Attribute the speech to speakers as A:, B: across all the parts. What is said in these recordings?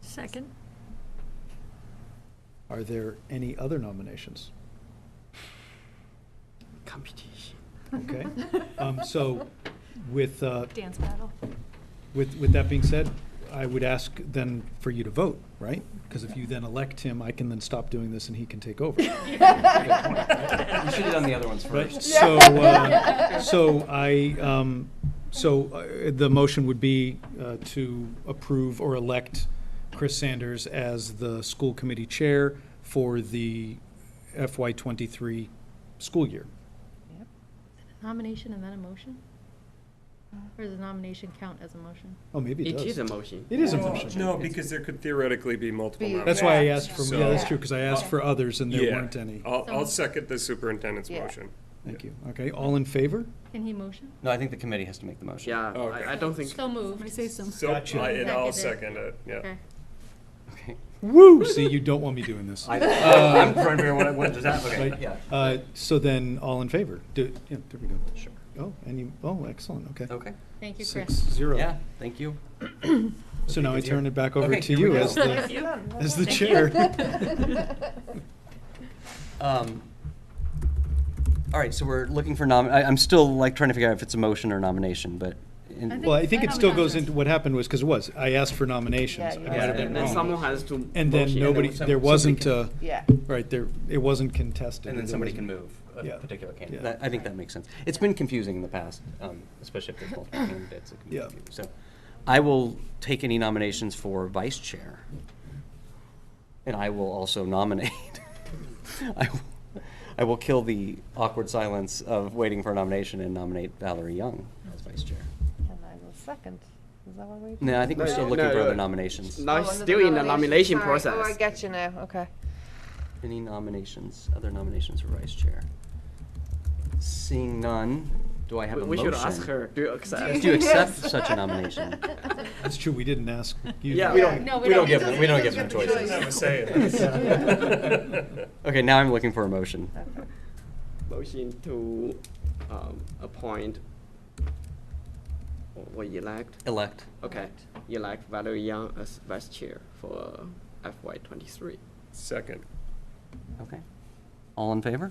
A: Second.
B: Are there any other nominations?
C: Competition.
B: Okay. Um, So with, uh,
A: Dance battle.
B: with, with that being said, I would ask then for you to vote, right? Because if you then elect him, I can then stop doing this and he can take over.
C: You should have done the other ones
B: Right,
C: first.
B: so, uh, so I, um, so uh, the motion would be uh, to approve or elect Chris Sanders as the school committee chair for the FY twenty-three school year.
D: Nomination and then a motion? Or does the nomination count as a motion?
B: Oh, maybe it
C: It
B: does.
C: is a motion.
B: It is a
E: Well,
B: motion.
E: No, because there could theoretically be multiple
F: Be-
E: nominees.
B: That's why I asked for, yeah, that's
E: So-
B: true, because I
C: uh,
B: asked for others and there
E: Yeah.
B: weren't any.
E: I'll, I'll
D: So-
E: second the superintendent's
F: Yeah.
E: motion.
B: Thank you. Okay, all in favor?
D: Can he motion?
C: No, I think the committee has to make the motion. Yeah,
E: Okay.
C: I, I don't think.
D: So moved.
F: Somebody say some.
E: So,
B: Gotcha.
E: I- and I'll
D: Seconded.
E: second it, yeah.
D: Okay.
C: Okay.
B: Woo! See, you don't want me doing this.
C: I, uh, I'm trying to remember what, what does that, okay,
B: Right.
C: yeah.
B: Uh, So then, all in favor? Do, yeah, there we go. Sure. Oh, and you, oh, excellent, okay.
C: Okay,
D: Thank you,
B: Six,
D: Chris.
B: zero.
C: yeah, thank you.
B: So now I turn it back over
C: Okay,
B: to
C: here
B: you
C: we
B: as
C: go.
B: the, as the chair.
C: Um, All right, so we're looking for nom, I, I'm still like trying to figure out if it's a motion or nomination, but. in-
D: I think-
B: Well, I think it still goes
D: Nominations.
B: into, what happened was, because it was, I asked for nominations. I
F: Yeah, you
B: might have been
C: And then
B: wrong.
C: someone has to.
B: And then
C: motion,
B: nobody,
C: some-
B: there
C: somebody
B: wasn't,
C: can-
B: uh,
F: Yeah.
B: right, there, it wasn't contested.
C: And then
B: There
C: somebody can
B: wasn't-
C: move
B: Yeah.
C: a particular candidate.
B: Yeah.
C: That- I think that makes sense. It's been confusing in the past, um, especially if there's multiple candidates. it can be
B: Yeah.
C: confusing. So I will take any nominations for vice chair. And I will also nominate. I will- I will kill the awkward silence of waiting for a nomination and nominate Valerie Young as vice chair.
F: And I will second. Is that what we?
C: No, I think we're
G: No,
C: still
G: no,
C: looking for
G: no.
C: other nominations.
G: Now it's still in the nomination process.
F: Oh, I get you now, okay.
C: Any nominations, other nominations for vice chair? Seeing none, do I have
G: We
C: a
G: we
C: motion?
G: should ask her. Do you accept?
C: Do you accept such a nomination?
B: That's true, we didn't ask you.
G: Yeah, we
F: don't-
D: No,
C: we don't give
D: them.
C: them- we don't give them choices.
E: I was saying this.
C: Okay, now I'm looking for a motion.
G: Motion to um, appoint or- or elect.
C: Elect.
G: Okay, elect Valerie Young as vice chair for FY twenty-three.
E: Second.
C: Okay. All in favor?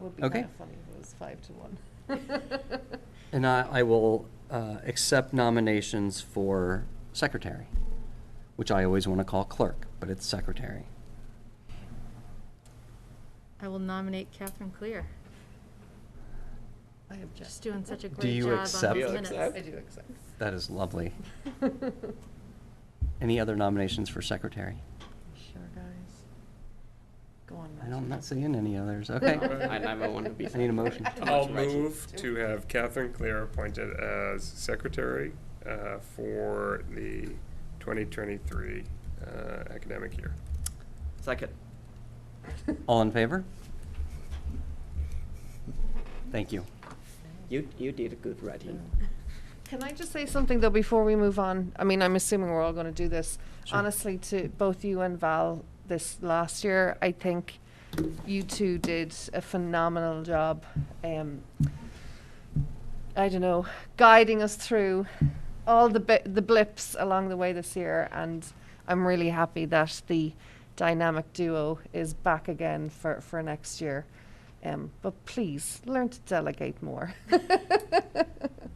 F: Would be
C: Okay.
F: kind of funny if it was five to one.
C: And I, I will uh, accept nominations for secretary, which I always want to call clerk, but it's secretary.
D: I will nominate Catherine Clear.
F: I object.
D: She's doing such a
C: Do
D: great
C: you
D: job on these
C: accept- Do
G: you
D: minutes.
G: accept?
F: I do accept.
C: That is lovely. Any other nominations for secretary?
F: Sure, guys. Go on.
C: I
F: Matt.
C: don't, I'm not seeing any others. Okay.
G: I never want to be.
C: I need a motion.
E: I'll
G: Right.
E: move to have Catherine Claire appointed as secretary uh, for the 2023 uh, academic year.
G: Second.
C: All in favor? Thank you.
G: You, you did good writing.
F: Can I just say something though before we move on? I mean, I'm assuming we're all going to do this.
C: Sure.
F: Honestly, to both you and Val this last year, I think you two did a phenomenal job. Um, I don't know, guiding us through all the bi- the blips along the way this year, and I'm really happy that the dynamic duo is back again for for next year. Um, but please learn to delegate more.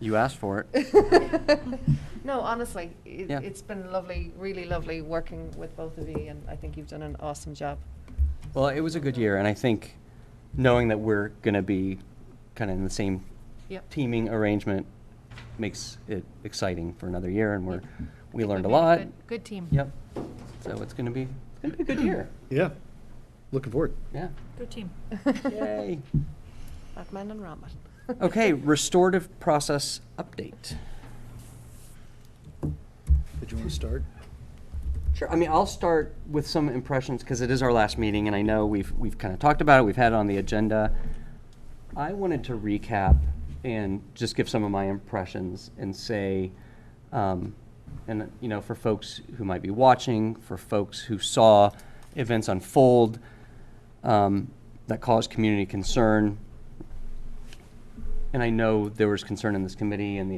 C: You asked for it.
F: No, honestly, it,
C: Yeah.
F: it's been lovely, really lovely working with both of you, and I think you've done an awesome job.
C: Well, it was a good year, and I think knowing that we're going to be kind of in the same
F: Yep.
C: teaming arrangement makes it exciting for another year, and we're we
D: Think
C: learned a
D: we've made
C: lot.
D: good- Good team.
C: Yep. So it's going to be it's going to be a good year.
B: Yeah, looking forward.
C: Yeah.
A: Good team.
C: Yay.
F: Batman and Robin.
C: Okay. Restorative process update.
B: Did you want to start?
C: Sure. I mean, I'll start with some impressions because it is our last meeting, and I know we've we've kind of talked about it. We've had it on the agenda. I wanted to recap and just give some of my impressions and say, um, and you know, for folks who might be watching, for folks who saw events unfold um, that caused community concern, and I know there was concern in this committee and the